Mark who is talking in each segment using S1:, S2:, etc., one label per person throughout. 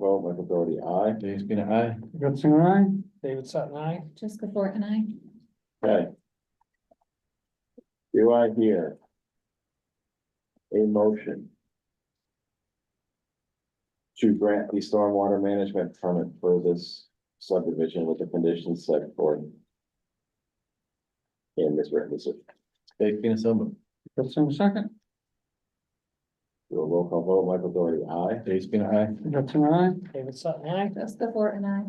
S1: vote, Michael Doherty, aye. James Pina, aye.
S2: Brooke Singer, aye.
S3: David Sutton, I.
S4: Jessica Thor and I.
S1: Okay. Do I hear? A motion? To grant the stormwater management permit for this subdivision with the conditions set forth. In this written decision. Dave Pina, so moved.
S2: Brooke Singer, second.
S1: Do a roll call vote, Michael Doherty, aye. Dave Spina, aye.
S2: Brooke Singer, aye.
S3: David Sutton, I.
S4: Jessica Thor and I.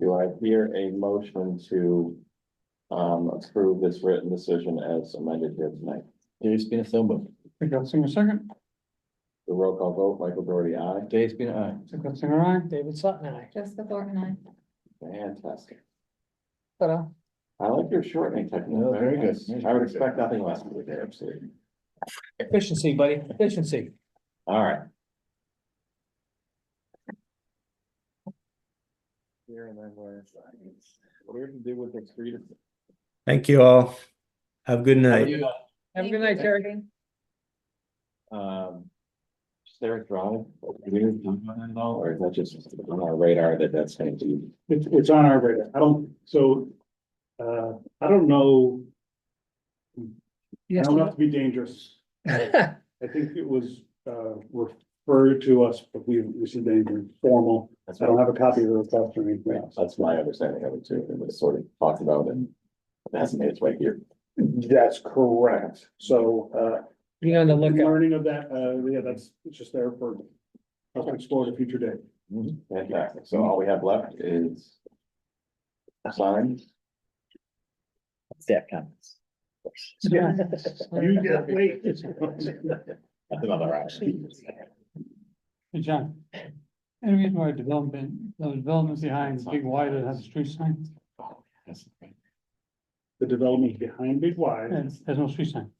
S1: Do I hear a motion to? Um, approve this written decision as amended here tonight? Dave Spina, so moved.
S2: Brooke Singer, second.
S1: The roll call vote, Michael Doherty, aye. Dave Spina, aye.
S2: Brooke Singer, aye.
S3: David Sutton, I.
S4: Jessica Thor and I.
S1: Fantastic.
S3: Ta-da.
S1: I like your shortening technique.
S5: No, very good.
S1: Nice. I would expect nothing less from you there, absolutely.
S3: Efficiency, buddy, efficiency.
S1: All right. Here and then where it's like, what are we gonna do with the three to?
S6: Thank you all. Have a good night.
S3: Have a good night, Terry.
S1: Um. Is there a drive? Do we need to talk about that at all, Or is that just on our radar that that's gonna do?
S7: It's, it's on our radar. I don't, so, uh, I don't know, I
S2: Yes.
S7: don't have to be dangerous. I think it was, uh, referred to us, but we received anything formal.
S1: That's
S7: I don't
S1: what-
S7: have a copy of the request or anything else.
S1: That's my understanding of it too. It was sort of talked about and it hasn't made its way here.
S7: That's correct. So, uh,
S3: Be on the lookout.
S7: learning of that, uh, yeah, that's, it's just there for, us to explore at a future day.
S1: Fantastic. Mm-hmm. So all we have left is. Signs.
S5: Staff comments.
S7: Yeah. You get late.
S5: That's another option.
S2: Hey, John. Any reason why development, the developments behind Big Y that has a street sign,
S7: The development behind Big Y,
S2: there's, there's no street sign.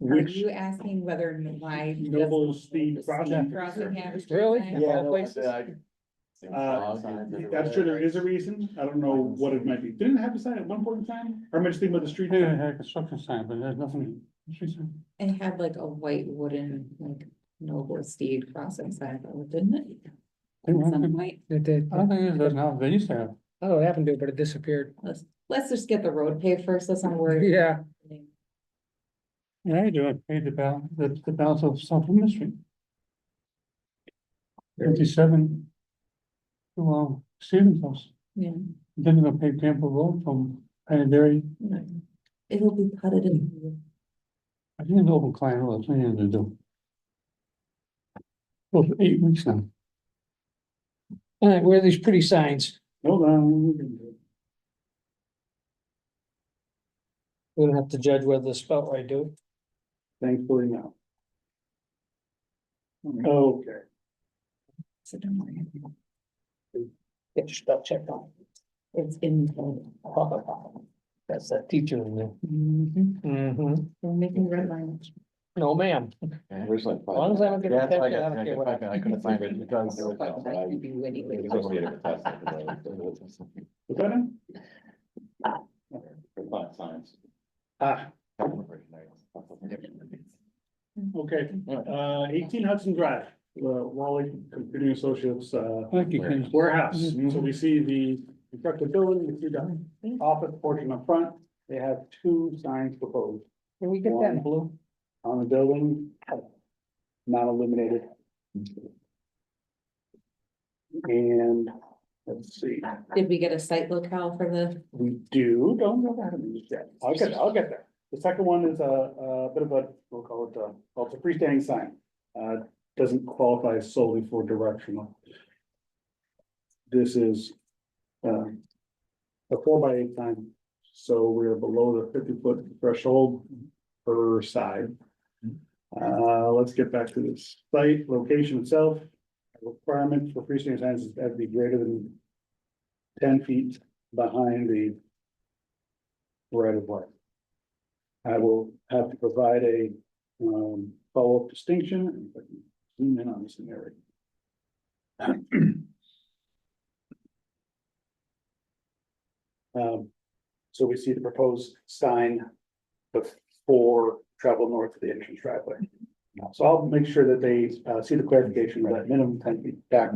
S4: Are
S7: which
S4: you asking whether why?
S7: Noble Speed Crossing.
S4: Crossing has?
S3: Really?
S4: Yeah.
S3: All places?
S7: Uh, I'm sure there is a reason. I don't know what it might be. Didn't it have a sign at one point in time? Or am I just thinking about the street?
S2: They
S7: sign?
S2: had a construction sign, but there's nothing, street sign.
S4: And it had like a white wooden, like Noble Steed Crossing sign, though, didn't it?
S2: They
S4: At some
S2: weren't-
S4: point.
S3: It did.
S2: I don't think it does now, they used to have.
S3: I don't know what happened to it, but it disappeared.
S4: Let's, let's just get the road paved first, let's not worry.
S3: Yeah.
S2: Yeah, you do, I paid the balance, the, the balance of South Loomis Street. Fifty-seven. Well, Stevens House,
S4: Yeah.
S2: then you to pay Campbell Road from Panadary,
S4: no. It'll be putted in.
S2: I think it's open client, road. that's what I needed to do. Well, for eight weeks now,
S3: All right, where are these pretty signs?
S7: Hold on.
S3: We don't have to judge whether they're spelled right, do
S7: Thankfully, no. Okay,
S4: So don't worry.
S3: we? Get your spell checked on.
S4: It's in.
S3: That's that teacher in there.
S4: Mhm.
S3: Mm-hmm.
S4: We're making red lines.
S3: No, ma'am.
S1: As
S3: As long as I don't get
S1: Yeah,
S3: infected,
S1: I
S3: I don't
S1: got- I
S3: care
S1: got
S3: what
S1: infected, I couldn't find it because there was no- I-
S4: Like you anyway.
S1: it was supposed to be a test at the moment, so it was-
S7: was that it?
S1: for five times.
S7: Ah, okay, uh, eighteen Hudson Drive, uh, Wally Computing Associates, uh,
S2: thank you, Mm-hmm. James.
S7: warehouse. So we see the constructed building, we see the office portion up front. They have two signs proposed
S3: Can we get that in blue?
S7: on the building, not illuminated. And let's see.
S4: Did we get a site locale for the,
S7: We do, don't know how to use that. I'll get, I'll get there. The second one is a, a bit of a, we'll call it a, well, it's a freestanding sign. Uh, doesn't qualify solely for directional. This is, um, a four by eight sign, so we're below the fifty foot threshold per side. Uh, let's get back to the site, location itself. Requirement for freestanding signs is that to be greater than ten feet behind the right of way. I will have to provide a um follow-up distinction. if I can Zoom in on this area. Um, so we see the proposed sign before travel north to the entrance driveway. So I'll make sure that they uh see the clarification of that minimum ten feet back